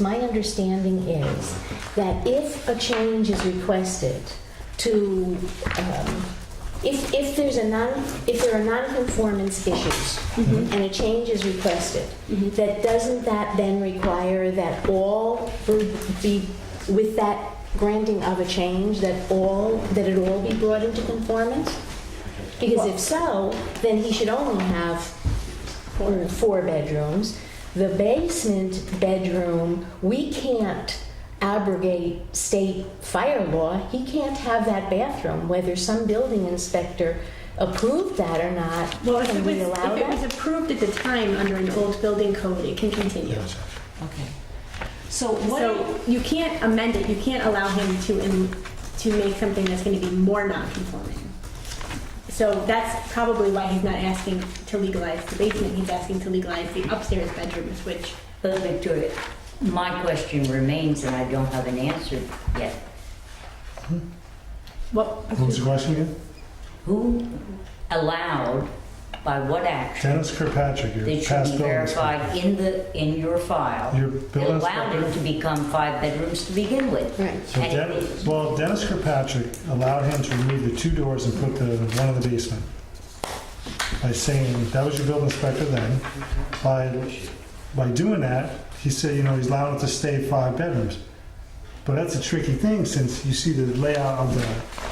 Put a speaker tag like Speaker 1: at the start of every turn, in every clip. Speaker 1: My understanding is that if a change is requested to, um, if, if there's a non, if there are non-conformance issues and a change is requested, that doesn't that then require that all be- be, with that granting of a change, that all, that it all be brought into conformance? Because if so, then he should only have or four bedrooms. The basement bedroom, we can't abrogate state fire law. He can't have that bathroom, whether some building inspector approved that or not.
Speaker 2: Well, if it
Speaker 1: Can
Speaker 2: was,
Speaker 1: we allow
Speaker 2: if it was
Speaker 1: that?
Speaker 2: approved at the time under an old building code, it can continue.
Speaker 3: Okay. So what,
Speaker 2: So you can't amend it, you can't allow him to, in- to make something that's gonna be more non-conforming. So that's probably why he's not asking to legalize the basement, he's asking to legalize the upstairs bedrooms, which,
Speaker 4: Well, Victoria, my question remains and I don't have an answer yet.
Speaker 2: well,
Speaker 5: What was the question again?
Speaker 4: Who allowed, by what action,
Speaker 5: Dennis Kirkpatrick, your
Speaker 4: that should
Speaker 5: past
Speaker 4: be
Speaker 5: building inspector.
Speaker 4: verified in the, in your file?
Speaker 5: Your
Speaker 4: that
Speaker 5: building
Speaker 4: Allowed it
Speaker 5: inspector?
Speaker 4: to become five bedrooms to begin with?
Speaker 1: Right.
Speaker 5: So
Speaker 4: And
Speaker 5: Den-
Speaker 4: it-
Speaker 5: well, Dennis Kirkpatrick allowed him to remove the two doors and put the one in the basement by saying that was your building inspector then. By by doing that, he said, you know, he's allowed it to stay five bedrooms. But that's a tricky thing since you see the layout of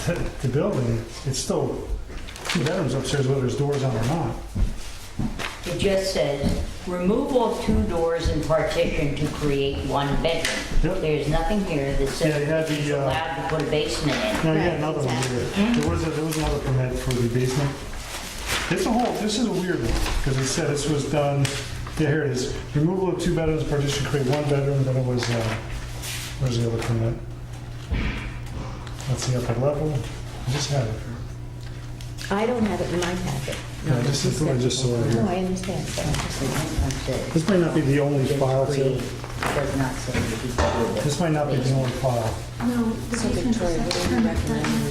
Speaker 5: the the, building, it's still two bedrooms upstairs, whether there's doors on or not.
Speaker 4: It just says, remove all two doors and partition to create one bedroom.
Speaker 5: Yep.
Speaker 4: There's nothing here that
Speaker 5: Yeah, you
Speaker 4: says
Speaker 5: had the,
Speaker 4: he's
Speaker 5: uh,
Speaker 4: allowed to put a basement in.
Speaker 5: No, you got
Speaker 1: Right,
Speaker 5: another one here. There was, a- there was another permit for the basement. It's a whole, this is a weird one, because it said this was done, yeah, here it is. Removal of two bedrooms, partition, create one bedroom, then it was, uh, where's the other permit? That's the upper level. I just had it here.
Speaker 1: I don't have it in my packet.
Speaker 5: Yeah, this is the one I just saw
Speaker 1: No,
Speaker 5: here.
Speaker 1: I understand. but-
Speaker 4: This
Speaker 5: This may not be the only file, too.
Speaker 4: Does not say that he's created.
Speaker 5: This might not be the only file.
Speaker 6: No, the basement was not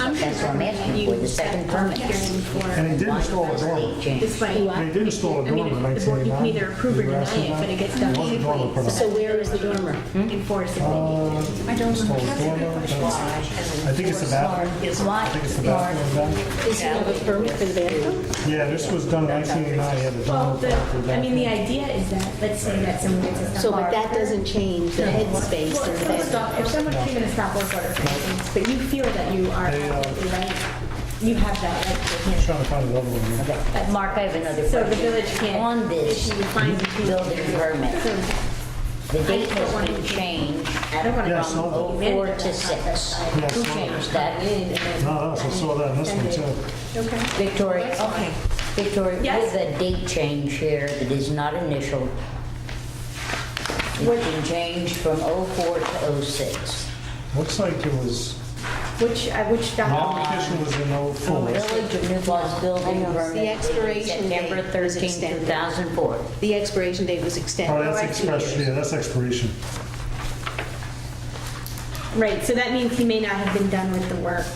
Speaker 2: I'm
Speaker 4: That's what I'm asking for, the second permit.
Speaker 2: hearing for
Speaker 5: And it did install a dormer.
Speaker 2: this way.
Speaker 5: And it did install a
Speaker 2: I mean,
Speaker 5: dormer in
Speaker 2: if the board- you can
Speaker 5: 1989.
Speaker 2: either approve or
Speaker 5: You were
Speaker 2: deny
Speaker 5: asking
Speaker 2: it,
Speaker 5: that?
Speaker 2: but it gets done
Speaker 5: It wasn't
Speaker 2: either
Speaker 5: dormer
Speaker 2: way.
Speaker 5: put on.
Speaker 1: So where is the dormer?
Speaker 2: enforce if they
Speaker 5: Uh,
Speaker 2: need to.
Speaker 6: I don't
Speaker 5: Install
Speaker 6: remember.
Speaker 5: dormer, that's- I think it's the bathroom.
Speaker 4: It's
Speaker 5: I think it's the
Speaker 4: like,
Speaker 5: bathroom back.
Speaker 1: Does he have a permit for the bathroom?
Speaker 5: Yeah, this was done in 1989, yeah, the
Speaker 2: Well,
Speaker 5: dormer
Speaker 2: the,
Speaker 5: back, the
Speaker 2: I mean, the
Speaker 5: bathroom.
Speaker 2: idea is that, let's say that someone gets a stop
Speaker 1: So, but
Speaker 2: work
Speaker 1: that
Speaker 2: order.
Speaker 1: doesn't change the headspace
Speaker 2: Well,
Speaker 1: or
Speaker 2: if
Speaker 1: the
Speaker 2: someone
Speaker 1: bedroom.
Speaker 2: stop- if someone came in a stop work order, for instance, but you feel that you are
Speaker 5: They, uh,
Speaker 2: absolutely right, you have that right to
Speaker 5: I'm
Speaker 2: cancel.
Speaker 5: trying to find the other one. here.
Speaker 4: But Mark, I have another
Speaker 2: So the
Speaker 4: question.
Speaker 2: village can't
Speaker 4: On this
Speaker 2: issue fines if you-
Speaker 4: building permit, the date
Speaker 2: don't
Speaker 4: has
Speaker 2: want
Speaker 4: been
Speaker 2: to-
Speaker 4: changed
Speaker 2: I don't want to.
Speaker 5: Yeah,
Speaker 4: from
Speaker 5: so-
Speaker 4: '04 to '06.
Speaker 5: Yeah,
Speaker 4: Who
Speaker 5: so-
Speaker 4: changed that?
Speaker 5: No, that's, I saw that in this one too.
Speaker 2: Okay.
Speaker 4: Victoria, okay. Victoria,
Speaker 2: Yes.
Speaker 4: with a date change here that is not initial, it's been changed from '04 to '06.
Speaker 5: Looks like it was,
Speaker 2: Which, uh, which
Speaker 5: the
Speaker 2: document?
Speaker 5: application was in
Speaker 4: The
Speaker 5: 04.
Speaker 4: Village was building permit
Speaker 1: The expiration date
Speaker 4: September
Speaker 1: is
Speaker 4: 13,
Speaker 1: extended.
Speaker 4: 2004.
Speaker 1: The expiration date was
Speaker 5: Oh,
Speaker 1: extended.
Speaker 5: that's expiration, yeah, that's expiration.
Speaker 2: Right, so that means he may not have been done with the work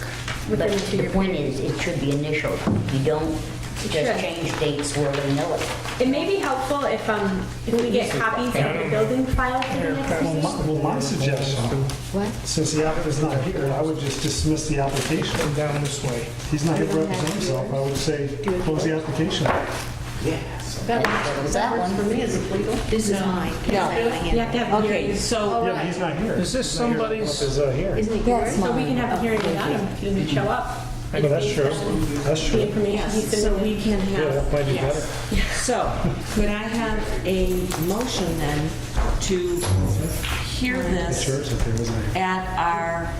Speaker 4: But
Speaker 2: within the
Speaker 4: the
Speaker 2: two-year
Speaker 4: point
Speaker 2: period.
Speaker 4: is, it should be initial. You don't
Speaker 2: should.
Speaker 4: just change dates where we know it.
Speaker 2: It may be helpful if, um, if we get copies of the building file for the next
Speaker 5: Well,
Speaker 2: meeting.
Speaker 5: my, well, my suggestion,
Speaker 1: What?
Speaker 5: since the applicant's not here, I would just dismiss the application.
Speaker 7: down this way.
Speaker 5: He's not here to represent himself, I would say, close the application.
Speaker 4: That was that one.
Speaker 1: This is mine.
Speaker 3: No.
Speaker 1: I have my hand.
Speaker 2: You have to have a
Speaker 3: okay,
Speaker 2: hearing.
Speaker 3: so,
Speaker 5: Yeah, but he's not here.
Speaker 7: Is this
Speaker 5: He's not here.
Speaker 7: somebody's-
Speaker 5: Is, uh, here.
Speaker 1: Isn't it yours?
Speaker 3: That's
Speaker 2: So we can have a hearing without him if he didn't show up.
Speaker 5: Well, that's
Speaker 2: It's
Speaker 5: true,
Speaker 2: based on
Speaker 5: that's
Speaker 2: The
Speaker 5: true.
Speaker 2: information he's
Speaker 3: yes, so
Speaker 2: been,
Speaker 3: we can
Speaker 5: Yeah, that might
Speaker 3: have,
Speaker 5: be better.
Speaker 3: yes. So, could I have a motion then to hear
Speaker 5: It's
Speaker 3: this
Speaker 5: yours, okay, wasn't it?
Speaker 3: at our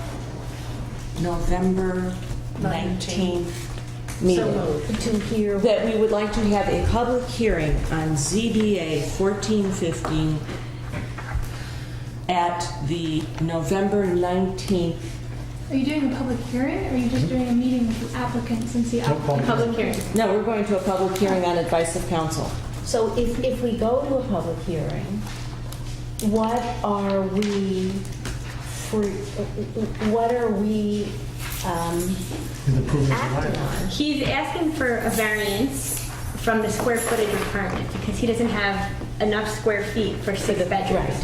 Speaker 3: November 19th meeting?
Speaker 1: To hear
Speaker 3: That we would like to have a public hearing on ZBA 1415 at the November 19th
Speaker 6: Are you doing a public hearing, or are you just doing a meeting with the applicant since the
Speaker 5: No problem.
Speaker 6: applicant?
Speaker 2: public hearing.
Speaker 3: No, we're going to a public hearing on advice of council.
Speaker 1: So if, if we go to a public hearing, what are we, free- what are we um,
Speaker 5: He's approving the
Speaker 1: acting
Speaker 5: line.
Speaker 1: on?
Speaker 2: He's asking for a variance from the square footage requirement because he doesn't have enough square feet for six bedrooms.